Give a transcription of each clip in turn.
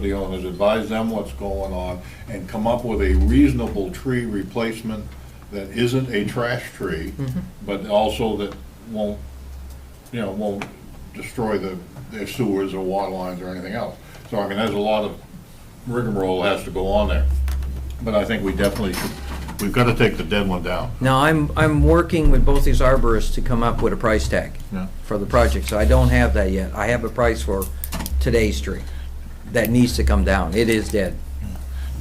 the owners, advise them what's going on, and come up with a reasonable tree replacement that isn't a trash tree, but also that won't, you know, won't destroy the, their sewers or water lines or anything else. So, I mean, there's a lot of rigmarole has to go on there, but I think we definitely should, we've gotta take the dead one down. Now, I'm, I'm working with both these arborists to come up with a price tag Yeah. for the project, so I don't have that yet. I have a price for today's tree that needs to come down. It is dead.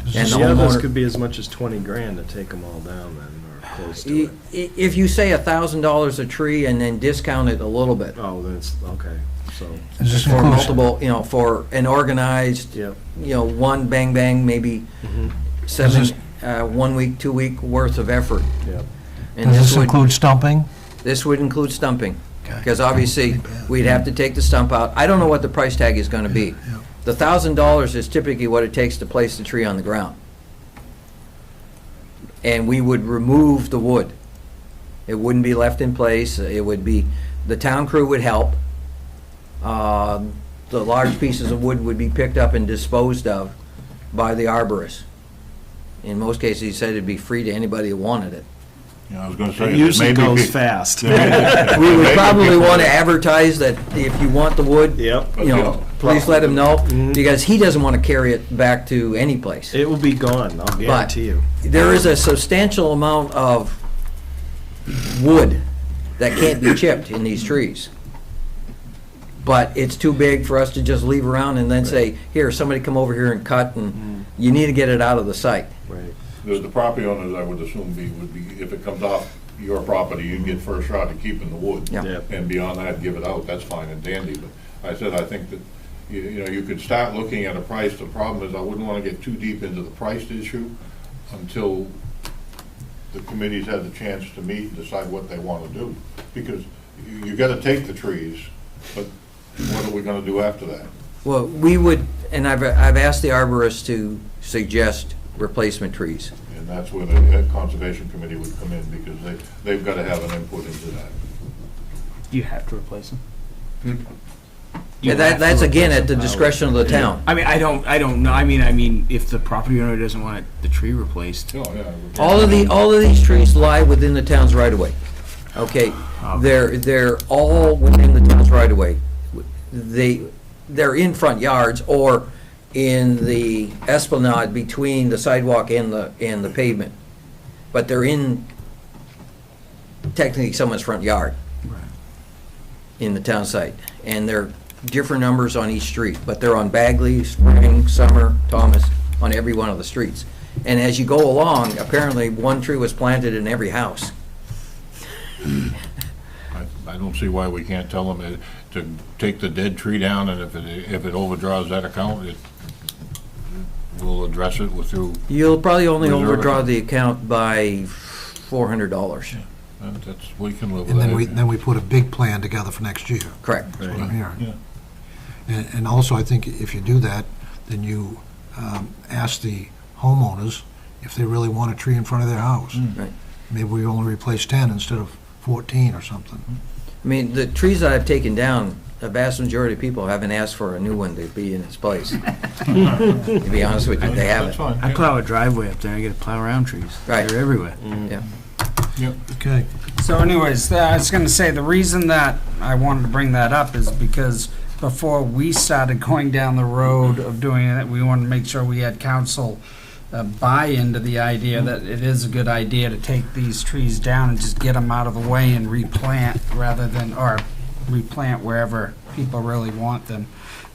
Yeah, And the those homeowner, could be as much as twenty grand to take them all down then, or close to I- it. i- if you say a thousand dollars a tree and then discount it a little bit Oh, then it's, okay, so, Does this for include, multiple, you know, for an organized, yeah. you know, one bang bang, maybe Does seven, uh, one week, two week worth of effort. Yep. And does this would- include stumping? This would include stumping, Okay. because obviously, we'd have to take the stump out. I don't know what the price tag is gonna be. yeah. The thousand dollars is typically what it takes to place the tree on the ground. And we would remove the wood. It wouldn't be left in place, it would be, the town crew would help. Um, The large pieces of wood would be picked up and disposed of by the arborist. In most cases, he said it'd be free to anybody who wanted it. You know, I was gonna say. It if usually maybe goes pe- fast. We Maybe would probably people- want to advertise that if you want the wood, you Yep, know, please let him know, Mm-hmm. because he doesn't want to carry it back to any place. it will be gone, I'll guarantee you. There is a substantial amount of wood that can't be chipped in these trees. But it's too big for us to just leave around and then say, here, somebody come over here and cut, Mm-hmm. and you need to get it out of the site. Right, The, the property owners, I would assume, be, would be, if it comes off your property, you'd get first shot at keeping the wood. Yeah. Yeah. And beyond that, give it out, that's fine and dandy, but I said, I think that, you, you know, you could start looking at a price, the problem is, I wouldn't wanna get too deep into the price issue until the committees had the chance to meet and decide what they wanna do, because you, you gotta take the trees, but what are we gonna do after that? Well, we would, and I've, I've asked the arborist to suggest replacement trees. And that's where the Conservation Committee would come in, because they, they've gotta have an input into that. You have to replace them. Yeah, that, that's again at the discretion of the town. I mean, I don't, I don't know. I mean, I mean, if the property owner doesn't want it- the tree replaced, Oh, yeah. All of the, all of these trees lie within the town's right of way. Okay, they're, they're all within the town's right of way. They, they're in front yards or in the esplanade between the sidewalk and the, and the pavement. But they're in technically someone's front yard. in the town site. And they're different numbers on each street, but they're on Bagley, Spring, Summer, Thomas, on every one of the streets. And as you go along, apparently one tree was planted in every house. I, I don't see why we can't tell them it- to take the dead tree down, and if it, if it overdraws that account, it, we'll address it with through, You'll probably only Reserve overdraw account. the account by four hundred dollars. and that's, we can live with And then we, that. then we put a big plan together for next year, Correct. is what I'm hearing. Yeah. And, and also, I think if you do that, then you um, ask the homeowners if they really want a tree in front of their house. Right. Maybe we only replace 10 instead of 14 or something. I mean, the trees that I've taken down, the vast majority of people haven't asked for a new one to be in its place. To be honest with you, they That's haven't. fine, I yeah, plow a driveway up there. I get to plow around trees. Right. They're everywhere. Yeah. yeah. Okay. So anyways, uh, I was gonna say, the reason that I wanted to bring that up is because before we started going down the road of doing it, we wanted to make sure we had council uh, buy into the idea that it is a good idea to take these trees down and just get them out of the way and replant rather than, or replant wherever people really want them.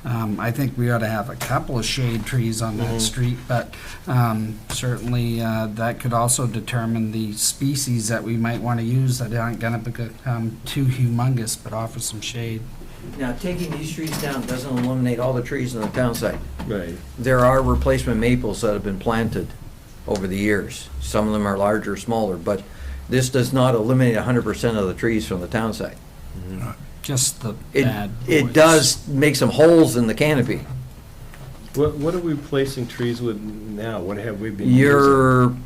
Um, I think we ought to have a couple of shade trees on Mm-hmm. that street, but um, certainly uh, that could also determine the species that we might want to use that aren't going to become too humongous, but offer some shade. Now, taking these trees down doesn't eliminate all the trees in the town site. right. there are replacement maples that have been planted over the years. Some of them are larger, smaller, but this does not eliminate hundred percent of the trees from the town site. Just the It, bad. it boys. does make some holes in the canopy. What, what are we placing trees with now? What have we been using? Your,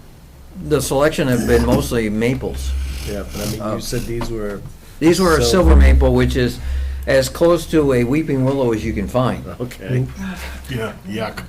the selection have been mostly maples. uh, Yeah, but I mean, you said these were, These were a So- silver maple, which is as close to a weeping willow as you can find. Okay. Yeah, yuck.